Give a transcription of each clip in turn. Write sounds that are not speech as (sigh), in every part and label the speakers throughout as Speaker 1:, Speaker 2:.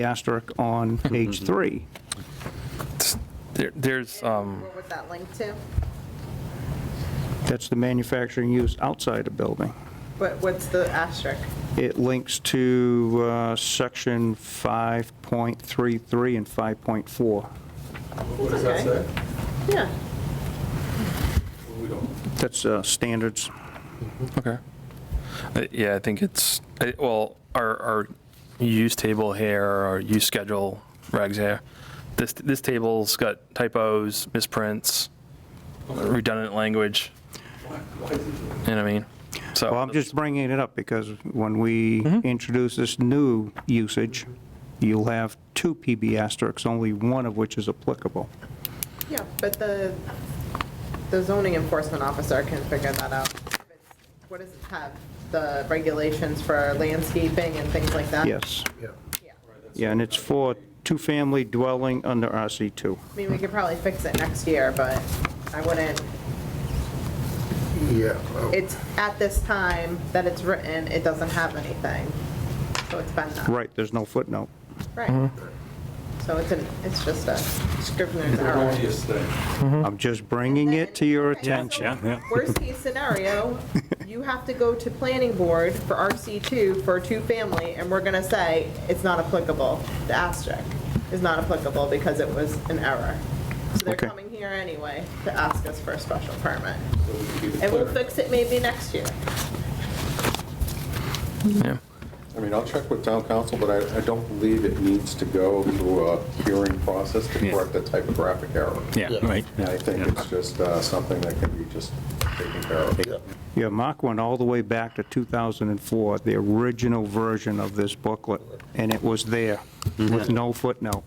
Speaker 1: the asterisk on page three.
Speaker 2: There- There's, um,
Speaker 3: What was that linked to?
Speaker 1: That's the manufacturing use outside a building.
Speaker 3: What, what's the asterisk?
Speaker 1: It links to uh, section 5.33 and 5.4.
Speaker 4: What does that
Speaker 3: Okay.
Speaker 4: say?
Speaker 3: Yeah.
Speaker 4: We don't.
Speaker 1: That's uh, standards.
Speaker 2: okay. Uh, Yeah, I think it's, I- well, our, our use table here, our use schedule regs here, this, this table's got typos, misprints, redundant language,
Speaker 4: Why, why is it?
Speaker 2: you know what I mean? So.
Speaker 1: Well, I'm just bringing it up because when we introduce this new usage, you'll have two PB asterisks, only one of which is applicable.
Speaker 3: Yeah, but the, the zoning enforcement officer can figure that out. What does it have? The regulations for landscaping and things like that?
Speaker 1: Yes.
Speaker 3: Yeah.
Speaker 1: Yeah, and it's for two-family dwelling under RC2.
Speaker 3: I mean, we could probably fix it next year, but I wouldn't,
Speaker 4: Yeah. well,
Speaker 3: it's at this time that it's written, it doesn't have anything. So it's been that.
Speaker 1: Right, Mm-hmm. there's no footnote.
Speaker 3: Right. So it's an, it's just a scrivener's error.
Speaker 4: Erroneous thing.
Speaker 1: I'm just bringing it to your
Speaker 3: Okay, so
Speaker 1: attention.
Speaker 3: Worst case scenario, you have to go to planning board for RC2 for two-family, and we're gonna say it's not applicable. The asterisk is not applicable because it was an error. So they're
Speaker 1: Okay.
Speaker 3: coming here anyway to ask us for a special permit. And we'll fix it maybe next year.
Speaker 2: Yeah.
Speaker 5: I mean, I'll check with town council, but I, I don't believe it needs to go through a hearing process to correct a typographic error.
Speaker 6: Yeah, right.
Speaker 5: I think it's just uh, something that can be just taken care of.
Speaker 1: Yeah, Mark went all the way back to 2004, the original version of this booklet, and it was there with no footnote,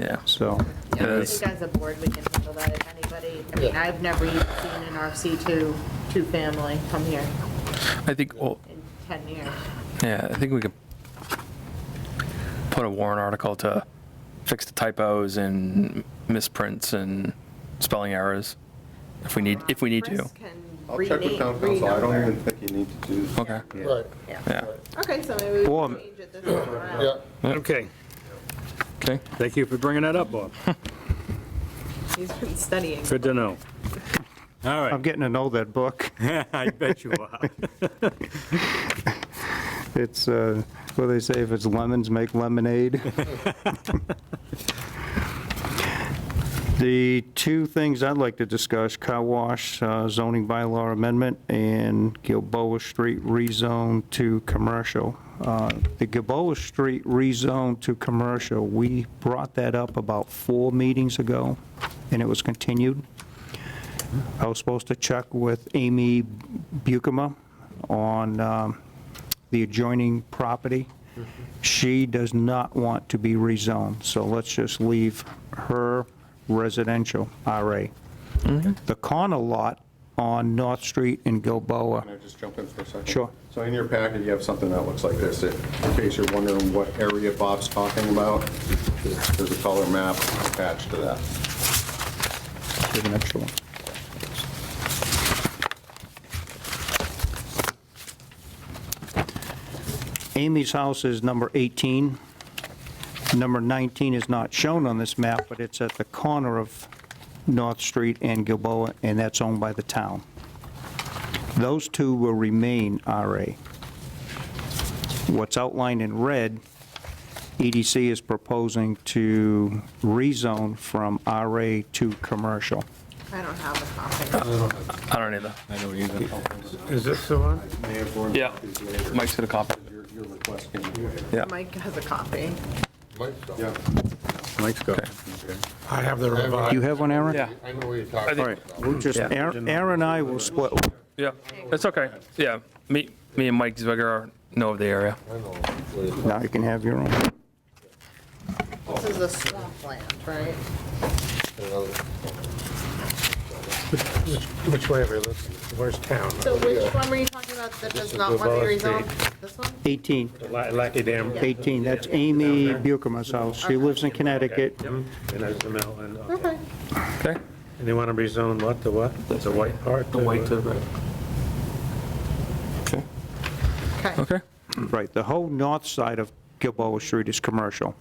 Speaker 2: Yeah.
Speaker 1: so.
Speaker 2: Yeah,
Speaker 7: I
Speaker 2: that's-
Speaker 7: think as a board, we can handle that if anybody, I mean, I've never even seen an RC2 two-family come here
Speaker 2: I think, well,
Speaker 7: in 10 years.
Speaker 2: yeah, I think we could put a warrant article to fix the typos and misprints and spelling errors if we need, if we need to.
Speaker 3: Chris can
Speaker 5: I'll check with
Speaker 3: rename-
Speaker 5: town council, I don't
Speaker 3: renumber.
Speaker 5: even think you need to do.
Speaker 2: Okay.
Speaker 6: Right,
Speaker 2: Yeah. um,
Speaker 3: Okay, so maybe we
Speaker 1: Or-
Speaker 3: can change it this time around.
Speaker 6: yeah.
Speaker 8: Okay,
Speaker 2: Okay.
Speaker 8: thank you for bringing that up, Bob.
Speaker 3: He's been studying.
Speaker 8: Good to know. All
Speaker 1: I'm
Speaker 8: right,
Speaker 1: getting to know that book.
Speaker 8: (laughs) I bet you are.
Speaker 1: (laughs) It's, uh, what do they say, if it's lemons, make
Speaker 8: (laughs)
Speaker 1: lemonade? The two things I'd like to discuss, car wash uh, zoning bylaw amendment and Gilboa Street rezone to commercial. Uh, The Gilboa Street rezone to commercial, we brought that up about four meetings ago, and it was continued. I was supposed to check with Amy Bukema on um, the adjoining property. She does not want to be rezoned, so let's just leave her residential RA. The corner lot on North Street in Gilboa,
Speaker 5: Can I just jump in for a second?
Speaker 1: Sure.
Speaker 5: So in your packet, you have something that looks like this, in case you're wondering what area Bob's talking about, there's a color map attached to that.
Speaker 1: Here's an extra one. Amy's house is number 18. Number 19 is not shown on this map, but it's at the corner of North Street and Gilboa, and that's owned by the town. Those two will remain RA. What's outlined in red, EDC is proposing to rezone from RA to commercial.
Speaker 3: I don't have a copy.
Speaker 2: I don't either.
Speaker 6: Is this the one?
Speaker 5: May have run
Speaker 2: Yeah.
Speaker 5: copies later.
Speaker 2: Mike's gonna copy.
Speaker 5: Your your request came later.
Speaker 3: Mike has a copy.
Speaker 5: Yeah.
Speaker 6: Mike's got I have the
Speaker 1: Do you
Speaker 6: revised.
Speaker 1: have one, Aaron?
Speaker 2: Yeah.
Speaker 6: I know what you're talking
Speaker 2: think-
Speaker 6: about.
Speaker 1: We'll just,
Speaker 2: Yeah.
Speaker 1: Aaron Aaron and I will split,
Speaker 2: Yeah, it's okay. Yeah, me, me and Mike Zwigger know of the area.
Speaker 6: I know what it is.
Speaker 1: now you can have your own.
Speaker 3: This is a swampland, right?
Speaker 6: Which- Which way are we looking? Where's town?
Speaker 3: So which one were you talking about that does
Speaker 6: is
Speaker 3: not want to be
Speaker 6: Gilboa Street.
Speaker 3: resolved? This one?
Speaker 1: 18,
Speaker 6: La- Lackey Dam.
Speaker 1: 18, that's Amy Bukema's house. She lives in Connecticut.
Speaker 6: And there's the mill, and, okay.
Speaker 3: Okay.
Speaker 2: Okay?
Speaker 6: And they want to rezone what, the what? The white part? The white to red.
Speaker 3: Okay.
Speaker 2: Okay.
Speaker 1: Right, the whole north side of Gilboa Street is commercial.